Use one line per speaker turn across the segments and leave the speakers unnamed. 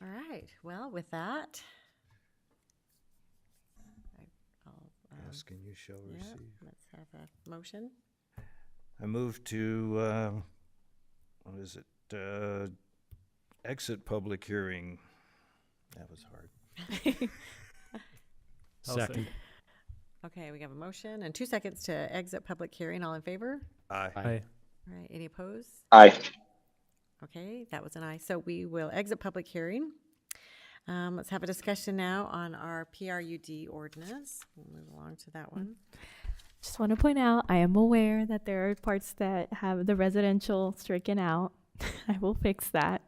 right. Well, with that, I- I'll, um,
Ask and you shall
yeah,
receive.
let's have a motion.
I move to, um, what is it, uh, exit public hearing. That was hard.
Second.
Okay, we have a motion and two seconds to exit public hearing. All in favor?
Aye.
Aye.
All right, any opposed?
Aye.
Okay, that was an aye. So we will exit public hearing. Um, let's have a discussion now on our PRUD ordinance. We'll move along to that one.
Just want to point out, I am aware that there are parts that have the residential stricken out. I will fix that.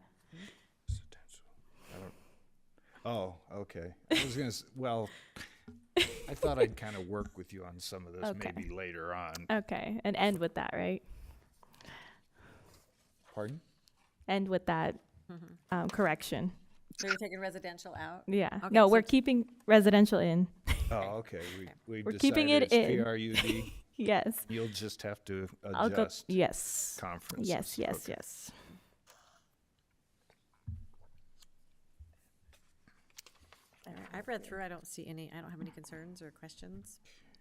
Oh, okay. I was gonna, s- well, I thought I'd kind of work with you on some of this
Okay. Uh,
maybe later on.
Okay, and end with that, right?
Pardon?
End with that um, correction.
So you're taking residential out?
Yeah.
Mm-hmm. Okay,
no,
so
we're
it's-
keeping residential in.
Oh, okay. We, we
We're keeping
decided
it in.
it's PRUD.
yes.
You'll just have to
I'll go.
adjust
Yes.
conferences.
Yes. Yes.
Okay.
Yes.
All right, I've read through. I don't see any, I don't have any concerns or questions.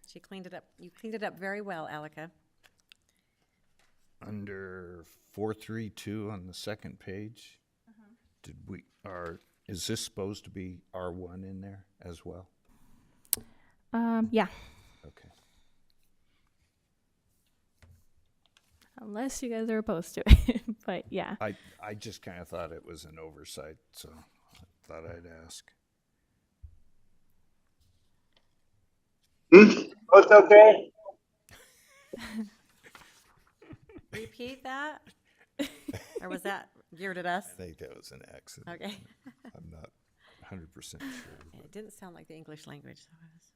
She cleaned it up. You cleaned it up very well, Alika.
Under four, three, two on the second page,
Uh-huh.
did we, are, is this supposed to be R one in there as well?
Um, yeah.
Okay.
Unless you guys are opposed to it, but yeah.
I, I just kind of thought it was an oversight, so I thought I'd ask.
Both okay?
Repeat that? Or was that geared at us?
I think that was an accident.
Okay.
I'm not hundred percent sure.
It didn't sound like the English language, so I was.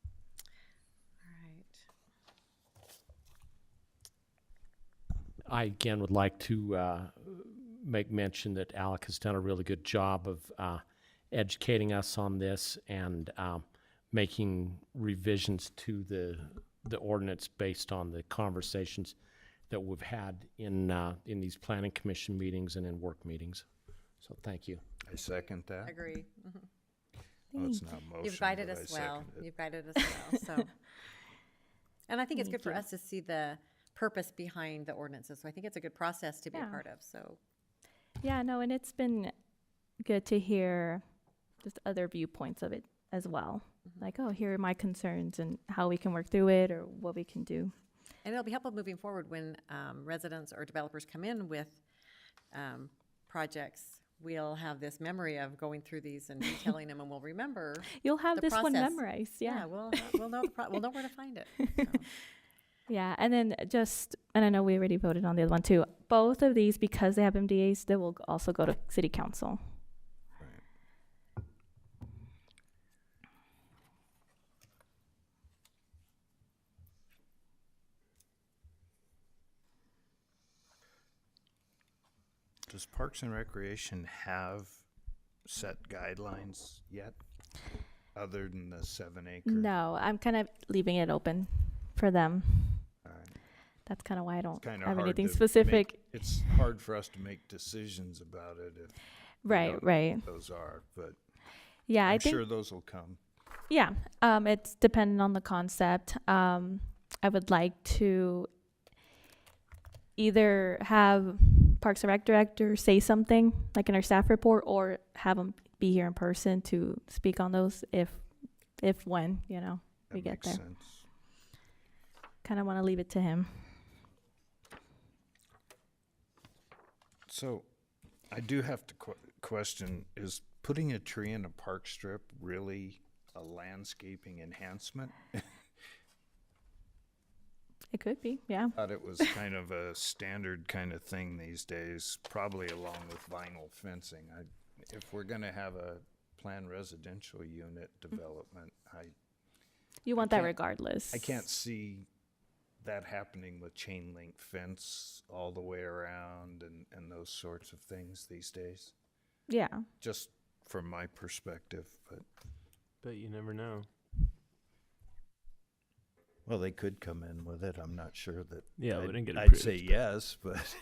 All right.
I again would like to uh, make mention that Alec has done a really good job of uh, educating us on this and um, making revisions to the the ordinance based on the conversations that we've had in uh, in these planning commission meetings and in work meetings. So thank you.
I second that.
Agree.
Oh, it's not a motion.
You've guided
but I
us well.
second it.
You've guided us well, so. And I think it's good for us to see the purpose behind the ordinances. So I think it's a good process to be a
Yeah.
part of, so.
Yeah. No, and it's been good to hear just other viewpoints of it as well.
Mm-hmm.
Like, oh, here are my concerns and how we can work through it or what we can do.
And it'll be helpful moving forward when um, residents or developers come in with um, projects. We'll have this memory of going through these and detailing them, and we'll remember.
You'll have
The
this one
process.
memorized.
Yeah, we'll, ha- we'll know, the pro- we'll know where to find it. so.
Yeah, and then just, and I know we already voted on the other one too. Both of these, because they have MDAs, they will g- also go to city council.
Does Parks and Recreation have set guidelines yet? Other than the seven acre?
No, I'm kind of leaving it open for them.
Alright.
That's kind of why I don't
Kinda
have
hard
anything
to make-
specific.
It's hard for us to make decisions about it if we
Right,
don't know
right.
what Those are, but
Yeah, I
I'm
think
sure those will come.
Yeah, um, it's dependent on the concept. Um, I would like to either have Parks and Rec director say something like in our staff report, or have them be here in person to speak on those if, if when you know we
That
get
makes
there.
sense.
Kind of want to leave it to him.
So I do have to que- question, is putting a tree in a park strip really a landscaping enhancement?
It could be, yeah.
Thought it was kind of a standard kind of thing these days, probably along with vinyl fencing. I, if we're gonna have a planned residential unit
Mm.
development, I,
You want that
can't-
regardless.
I can't see that happening with chain link fence all the way around and, and those sorts of things these days.
Yeah,
Just from my perspective, but.
But you never know.
Well, they could come in with it. I'm not sure that.
Yeah, we
I'd-
didn't get
I'd say
approved,
yes, but